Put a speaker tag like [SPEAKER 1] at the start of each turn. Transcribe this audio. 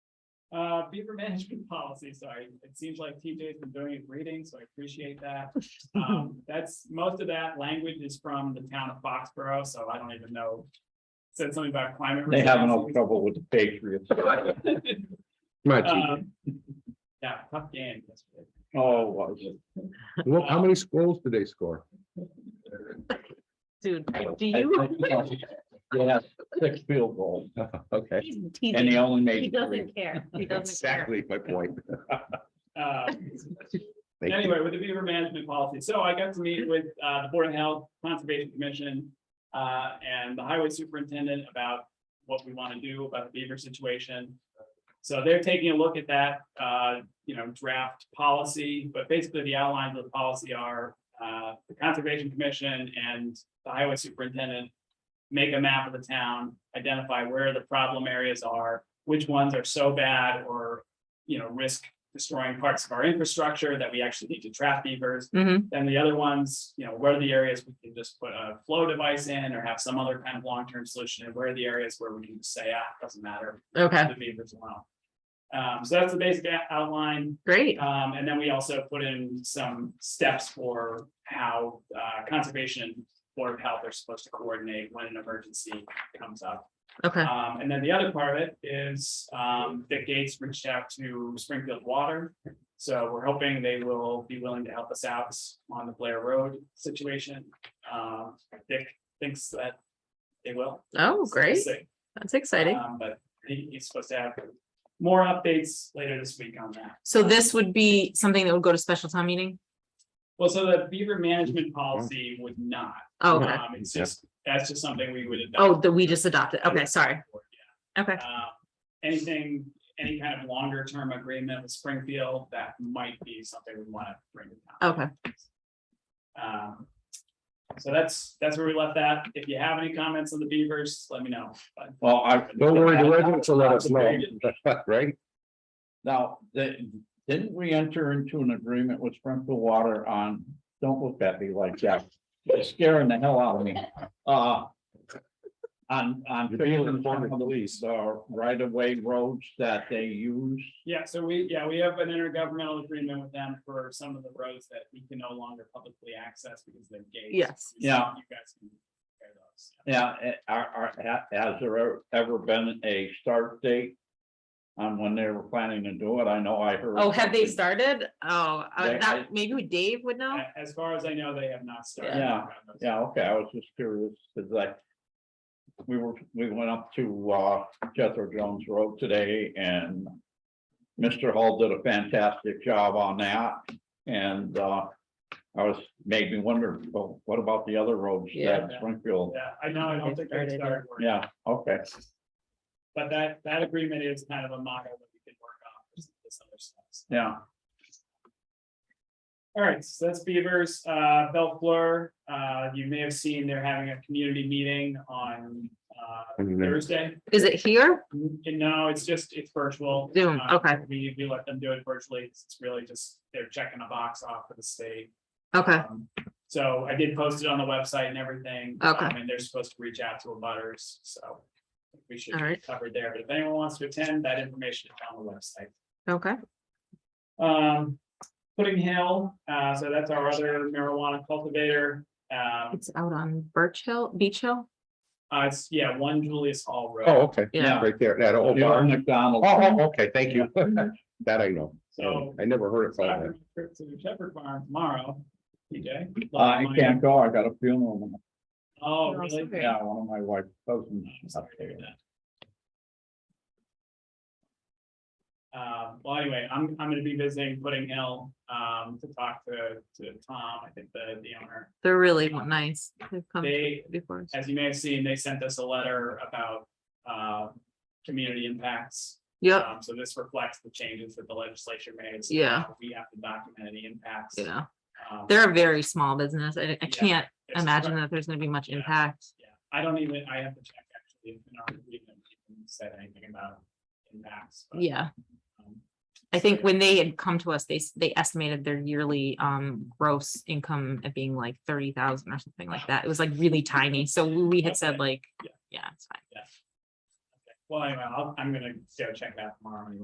[SPEAKER 1] Uh, beaver management policy, sorry, it seems like TJ's been doing it reading, so I appreciate that. Um, that's, most of that language is from the town of Foxborough, so I don't even know. Said something about climate.
[SPEAKER 2] They have no
[SPEAKER 1] resiliency.
[SPEAKER 2] trouble with the Patriots.
[SPEAKER 3] Come
[SPEAKER 4] Uh,
[SPEAKER 3] on,
[SPEAKER 1] Um, Yeah, tough game. yesterday.
[SPEAKER 2] Oh, was it?
[SPEAKER 3] Chief. Well, how
[SPEAKER 4] uh,
[SPEAKER 3] many scrolls did they score?
[SPEAKER 4] Dude, do
[SPEAKER 2] I
[SPEAKER 4] you?
[SPEAKER 2] think so. Yeah, six field goals,
[SPEAKER 3] Okay,
[SPEAKER 4] He's
[SPEAKER 2] and
[SPEAKER 4] teasing.
[SPEAKER 2] he only
[SPEAKER 4] He
[SPEAKER 2] made three.
[SPEAKER 4] doesn't care. He doesn't care.
[SPEAKER 3] exactly my point.
[SPEAKER 1] Um,
[SPEAKER 3] Thank you.
[SPEAKER 1] Anyway, with the beaver management policy, so I got to meet with uh the Board of Health, Conservation Commission. Uh, and the highway superintendent about what we want to do about the beaver situation. So they're taking a look at that, uh, you know, draft policy, but basically the outlines of the policy are. Uh, the Conservation Commission and the highway superintendent. Make a map of the town, identify where the problem areas are, which ones are so bad or, you know, risk destroying parts of our infrastructure that we actually need to trap beavers.
[SPEAKER 4] Mhm.
[SPEAKER 1] Then the other ones, you know, where are the areas we can just put a flow device in or have some other kind of long-term solution? And where are the areas where we can just say, ah, doesn't matter,
[SPEAKER 4] Okay,
[SPEAKER 1] the beavers alone? Um, so that's the basic ou- outline.
[SPEAKER 4] great.
[SPEAKER 1] Um, and then we also put in some steps for how, uh, conservation and Board of Health are supposed to coordinate when an emergency comes up.
[SPEAKER 4] Okay,
[SPEAKER 1] Um, and then the other part of it is, um, Dick Gates reached out to Springfield Water. So we're hoping they will be willing to help us out on the Blair Road situation. Um, Dick thinks that they will.
[SPEAKER 4] oh, great.
[SPEAKER 1] So,
[SPEAKER 4] That's exciting.
[SPEAKER 1] um, But he, he's supposed to have more updates later this week on that.
[SPEAKER 4] So this would be something that would go to special town meeting?
[SPEAKER 1] Well, so the beaver management policy would not.
[SPEAKER 4] Oh, Okay,
[SPEAKER 1] Um, It's just, that's just something we would.
[SPEAKER 4] oh,
[SPEAKER 1] adopt.
[SPEAKER 4] that we just adopted. Okay, sorry. Okay,
[SPEAKER 1] Uh, Anything, any kind of longer term agreement with Springfield, that might be something we want to bring. to town.
[SPEAKER 4] okay.
[SPEAKER 1] Um, So that's, that's where we left that. If you have any comments on the Beavers, let me know. But
[SPEAKER 2] Well, I.
[SPEAKER 3] Don't worry,
[SPEAKER 4] uh,
[SPEAKER 3] the residents will let us know, right?
[SPEAKER 2] Now, the- didn't we enter into an agreement with Springfield Water on, don't look at me like that, you're scaring the hell out of me. Uh. On, on
[SPEAKER 3] You're being
[SPEAKER 2] failing some
[SPEAKER 3] informed.
[SPEAKER 2] of these, uh, right of way roads that they use.
[SPEAKER 1] Yeah, so we, yeah, we have an intergovernmental agreement with them for some of the roads that we can no longer publicly access because they're gates.
[SPEAKER 4] Yes.
[SPEAKER 2] Yeah.
[SPEAKER 1] You guys can repair those.
[SPEAKER 2] Yeah, eh, are, are, ha- has there ever- ever been a start date? On when they were planning to do it, I know I heard.
[SPEAKER 4] Oh, have they
[SPEAKER 2] something.
[SPEAKER 4] started? Oh, uh,
[SPEAKER 2] They- I-
[SPEAKER 4] that, maybe Dave would know?
[SPEAKER 1] A- As far as I know, they have not started.
[SPEAKER 2] Yeah. Yeah, okay, I was just curious, cause like. We were, we went up to uh Jethro Jones Road today and. Mr. Hall did a fantastic job on that and uh. I was, made me wonder, well, what about the other roads
[SPEAKER 4] Yeah.
[SPEAKER 2] that Springfield?
[SPEAKER 1] Yeah, I know, I don't think they
[SPEAKER 4] Started, yeah.
[SPEAKER 1] started. working.
[SPEAKER 2] Yeah, okay,
[SPEAKER 1] But that, that agreement is kind of a model that we can work on for some of this other stuff.
[SPEAKER 2] yeah,
[SPEAKER 1] All right, so that's Beavers, uh, Belt Blur, uh, you may have seen they're having a community meeting on, uh, Thursday.
[SPEAKER 4] Is it here?
[SPEAKER 1] And no, it's just, it's virtual.
[SPEAKER 4] Zoom,
[SPEAKER 1] Uh,
[SPEAKER 4] okay.
[SPEAKER 1] We, we let them do it virtually, it's really just, they're checking a box off for the state.
[SPEAKER 4] Okay,
[SPEAKER 1] Um, So I did post it on the website and everything.
[SPEAKER 4] Okay.
[SPEAKER 1] Um, And they're supposed to reach out to abutters, so we should
[SPEAKER 4] All
[SPEAKER 1] be
[SPEAKER 4] right.
[SPEAKER 1] covered there, but if anyone wants to attend, that information is on the website.
[SPEAKER 4] okay.
[SPEAKER 1] Um, Pudding Hill, uh, so that's our other marijuana cultivator. Um,
[SPEAKER 4] It's out on Birch Hill, Beach Hill?
[SPEAKER 1] uh, it's, yeah, one Julius Hall Road.
[SPEAKER 3] Oh, okay,
[SPEAKER 4] Yeah.
[SPEAKER 3] right there, that old
[SPEAKER 2] the old
[SPEAKER 3] barn.
[SPEAKER 2] McDonald's.
[SPEAKER 3] Oh, oh, okay, thank you. That I know.
[SPEAKER 1] So-
[SPEAKER 3] I never heard it
[SPEAKER 1] So I'm
[SPEAKER 3] called
[SPEAKER 1] gonna trip to the Shepherd Farm tomorrow, TJ.
[SPEAKER 3] oh.
[SPEAKER 2] Uh, I can't go, I got a funeral,
[SPEAKER 1] Oh,
[SPEAKER 4] No,
[SPEAKER 1] really?
[SPEAKER 4] sorry.
[SPEAKER 2] yeah, one of my wife's cousins.
[SPEAKER 1] I'm sorry to hear that. Um, well, anyway, I'm, I'm gonna be visiting Pudding Hill, um, to talk to, to Tom, I think the, the owner.
[SPEAKER 4] They're really nice. They've come
[SPEAKER 1] They-
[SPEAKER 4] before. us.
[SPEAKER 1] As you may have seen, they sent us a letter about, uh, community impacts.
[SPEAKER 4] Yep,
[SPEAKER 1] Um, so this reflects the changes that the legislature made. so
[SPEAKER 4] Oh. Yeah.
[SPEAKER 1] now We have to document any impacts.
[SPEAKER 4] yeah.
[SPEAKER 1] Um,
[SPEAKER 4] They're a very small business. I, I
[SPEAKER 1] Yeah.
[SPEAKER 4] can't
[SPEAKER 1] it's-
[SPEAKER 4] imagine that there's gonna be much
[SPEAKER 1] Yeah.
[SPEAKER 4] impact.
[SPEAKER 1] Yeah, I don't even, I have to check actually, if in our agreement, we even said anything about impacts. but,
[SPEAKER 4] Yeah,
[SPEAKER 1] um,
[SPEAKER 4] I think when they had come to us, they, s- they estimated their yearly, um, gross income at being like thirty thousand or something like that. It was like really tiny. So we we had
[SPEAKER 1] Okay.
[SPEAKER 4] said like,
[SPEAKER 1] Yeah.
[SPEAKER 4] yeah, it's fine.
[SPEAKER 1] Well, anyway, I'll, I'm gonna go check that tomorrow anyway.